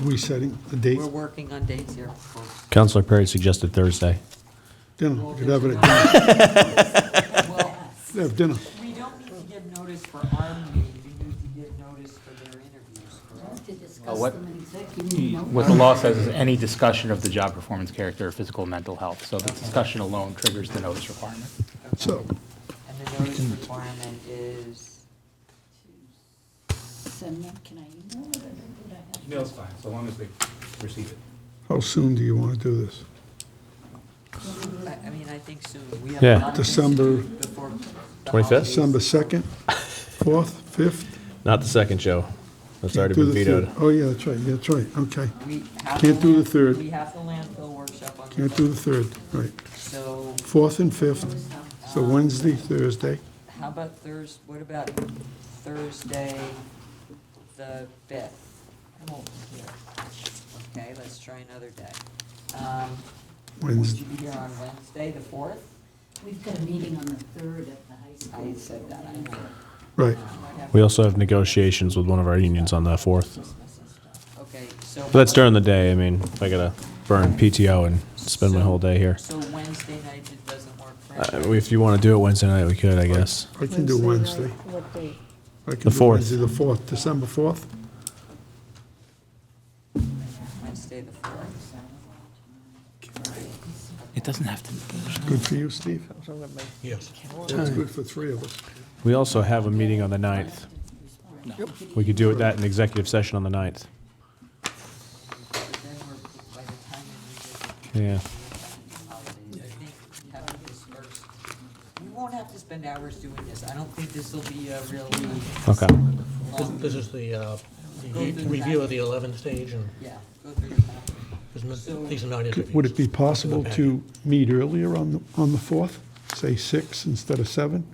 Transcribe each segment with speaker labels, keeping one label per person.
Speaker 1: resetting the date.
Speaker 2: We're working on dates here, folks.
Speaker 3: Counselor Perry suggested Thursday.
Speaker 1: Dinner, we could have it at
Speaker 2: Well,
Speaker 1: dinner. Have dinner.
Speaker 2: we don't need to give notice for our meeting, we need to give notice for their interviews, correct?
Speaker 4: to discuss
Speaker 5: what-
Speaker 4: them in executive. no?
Speaker 5: What the law says is any discussion of the job performance character or physical or mental health. So the discussion alone triggers the notice requirement.
Speaker 1: So,
Speaker 2: And the notice requirement is,
Speaker 4: Send them, can I email it or would I have to-
Speaker 5: Email's fine, so long as they receive it.
Speaker 1: how soon do you want to do this?
Speaker 2: I, I mean, I think soon, we have.
Speaker 3: Yeah.
Speaker 2: nothing
Speaker 1: December-
Speaker 2: Before. the
Speaker 3: 25th?
Speaker 2: holidays.
Speaker 1: December 2nd, 4th, 5th?
Speaker 3: Not the second, Joe. That's already
Speaker 1: Do
Speaker 3: been
Speaker 1: the third.
Speaker 3: vetoed.
Speaker 1: Oh, yeah, that's right, yeah, that's right, okay.
Speaker 2: We have
Speaker 1: Can't do the third.
Speaker 2: We have the landfill workshop on the
Speaker 1: Can't do
Speaker 2: third,
Speaker 1: the 3rd, right.
Speaker 2: so
Speaker 1: 4th and 5th, so Wednesday, Thursday,
Speaker 2: how about Thurs, what about Thursday, the fifth? I won't be here. Okay, let's try another day. Um, Would
Speaker 1: Wednesday.
Speaker 2: you be here on Wednesday, the fourth?
Speaker 4: We've got a meeting on the third at the high school.
Speaker 2: I said that, I know.
Speaker 1: Right,
Speaker 3: We also have negotiations with one of our unions on the 4th.
Speaker 2: Okay, so.
Speaker 3: But that's during the day. I mean, I gotta burn PTO and spend my whole day here.
Speaker 2: So Wednesday night, it doesn't work for
Speaker 3: Uh,
Speaker 2: anybody.
Speaker 3: If you want to do it Wednesday night, we could, I guess.
Speaker 1: I can do Wednesday.
Speaker 6: night, What date?
Speaker 1: I can
Speaker 3: The
Speaker 1: do
Speaker 3: fourth.
Speaker 1: Wednesday, The 4th, December 4th?
Speaker 2: Wednesday, the fourth.
Speaker 5: It doesn't have to.
Speaker 1: Good for you, Steve? Yes. That's good for three of us.
Speaker 3: We also have a meeting on the 9th. We could do it that in executive session on the 9th.
Speaker 2: But then we're, by the time we revisit
Speaker 3: Yeah.
Speaker 2: the holidays, I think having dispersed, we won't have to spend hours doing this. I don't think this will be a really
Speaker 3: Okay.
Speaker 2: long,
Speaker 7: This is the uh, the review of the 11th stage, and
Speaker 2: yeah, go through the packet.
Speaker 7: there's no- these are not
Speaker 1: Could- Would
Speaker 7: interviews.
Speaker 1: it be possible to meet earlier on, the on the 4th? Say 6 instead of 7?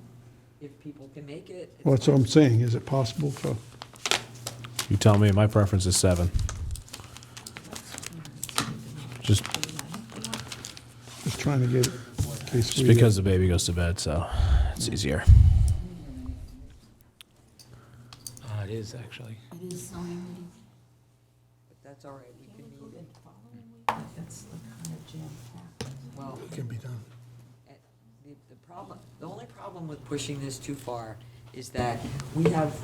Speaker 2: If people can make it, it's
Speaker 1: Well, that's what I'm saying, is it possible for,
Speaker 3: You tell me. My preference is 7. Just,
Speaker 1: just trying to get, it, in case
Speaker 3: just
Speaker 1: we... uh,
Speaker 3: because the baby goes to bed, so it's easier.
Speaker 5: Uh, it is, actually.
Speaker 4: It is zoning meeting.
Speaker 2: But that's all right, we can meet it. Well,
Speaker 1: Can be done.
Speaker 2: eh, the, the problem, the only problem with pushing this too far is that we have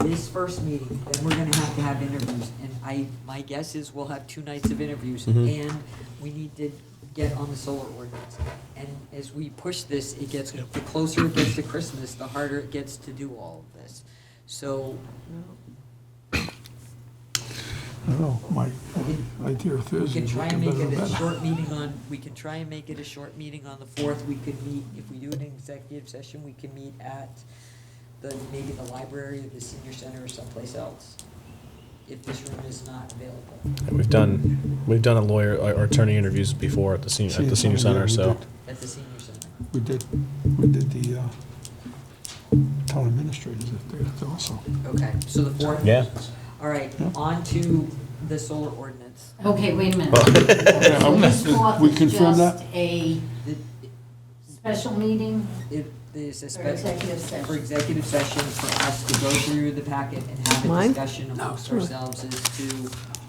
Speaker 2: this first meeting, then we're gonna have to have interviews. And I, my guess is we'll have two nights of interviews, and we need to get on the solar ordinance. And as we push this, it gets, the closer it gets to Christmas, the harder it gets to do all of this. So
Speaker 1: I don't know, my my idea of
Speaker 2: We
Speaker 1: Thursday
Speaker 2: can
Speaker 1: is
Speaker 2: try
Speaker 1: looking
Speaker 2: and make
Speaker 1: better
Speaker 2: it a
Speaker 1: and better.
Speaker 2: short meeting on, we can try and make it a short meeting on the fourth, we could meet, if we do an executive session, we can meet at the, maybe the library, or the senior center, or someplace else, if this room is not available.
Speaker 3: We've done, we've done a lawyer or or attorney interviews before at the senior, at the senior center, so.
Speaker 2: At the senior center,
Speaker 1: We did, we did the uh, town administrators at there also.
Speaker 2: okay, so the fourth?
Speaker 3: Yeah.
Speaker 2: All right, on to the solar ordinance.
Speaker 4: Okay, wait a minute.
Speaker 1: Oh.
Speaker 4: So this fourth
Speaker 1: We
Speaker 4: is
Speaker 1: confirm that?
Speaker 4: Just a
Speaker 2: The-
Speaker 4: special meeting?
Speaker 2: It, there's a
Speaker 4: For
Speaker 2: special,
Speaker 4: executive session.
Speaker 2: for executive session, for us to go through the packet and have a
Speaker 6: Mine?
Speaker 2: discussion amongst ourselves as to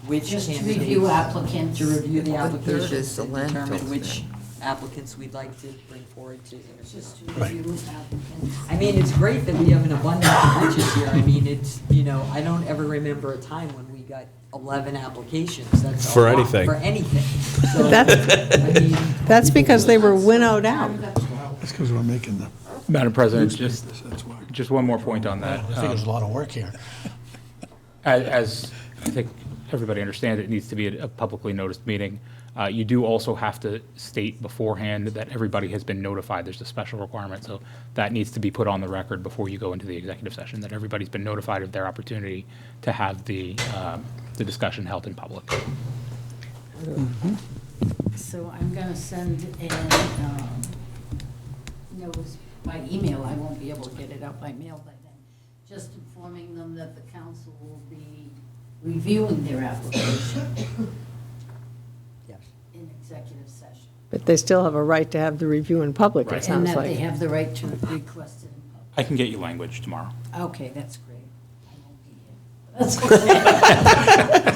Speaker 2: which
Speaker 4: Just to
Speaker 2: candidates.
Speaker 4: review applicants.
Speaker 2: to review the
Speaker 8: Well, the third
Speaker 2: applications
Speaker 8: is the
Speaker 2: and determine
Speaker 8: landfill
Speaker 2: which
Speaker 8: thing.
Speaker 2: applicants we'd like to bring forward to interview.
Speaker 4: Just to review applicants.
Speaker 2: I mean, it's great that we have an abundance of riches here. I mean, it's, you know, I don't ever remember a time when we got eleven applications. That's a
Speaker 3: For
Speaker 2: lot-
Speaker 3: anything.
Speaker 2: For anything. So,
Speaker 6: That's-
Speaker 2: I mean,
Speaker 6: That's because they were winnowed out.
Speaker 1: That's because we're making the
Speaker 5: Madam President, just,
Speaker 1: newspapers, that's why.
Speaker 5: just one more point on
Speaker 7: I
Speaker 5: that.
Speaker 7: think there's a lot of work here.
Speaker 5: As- As I think everybody understands, it needs to be a publicly noticed meeting. Uh, You do also have to state beforehand that everybody has been notified. There's a special requirement, so that needs to be put on the record before you go into the executive session, that everybody's been notified of their opportunity to have the, um, the discussion held in public.
Speaker 4: So I'm going to send a um, notice by email, I won't be able to get it out by mail by then, just informing them that the council will be reviewing their application
Speaker 2: yes.
Speaker 4: in executive session.
Speaker 6: But they still have a right to have the review in public,
Speaker 5: Right.
Speaker 6: it
Speaker 4: And
Speaker 6: sounds
Speaker 4: that they
Speaker 6: like.
Speaker 4: have the right to request it in
Speaker 5: I can get you language tomorrow.
Speaker 4: public. Okay, that's great. I won't be here. That's okay.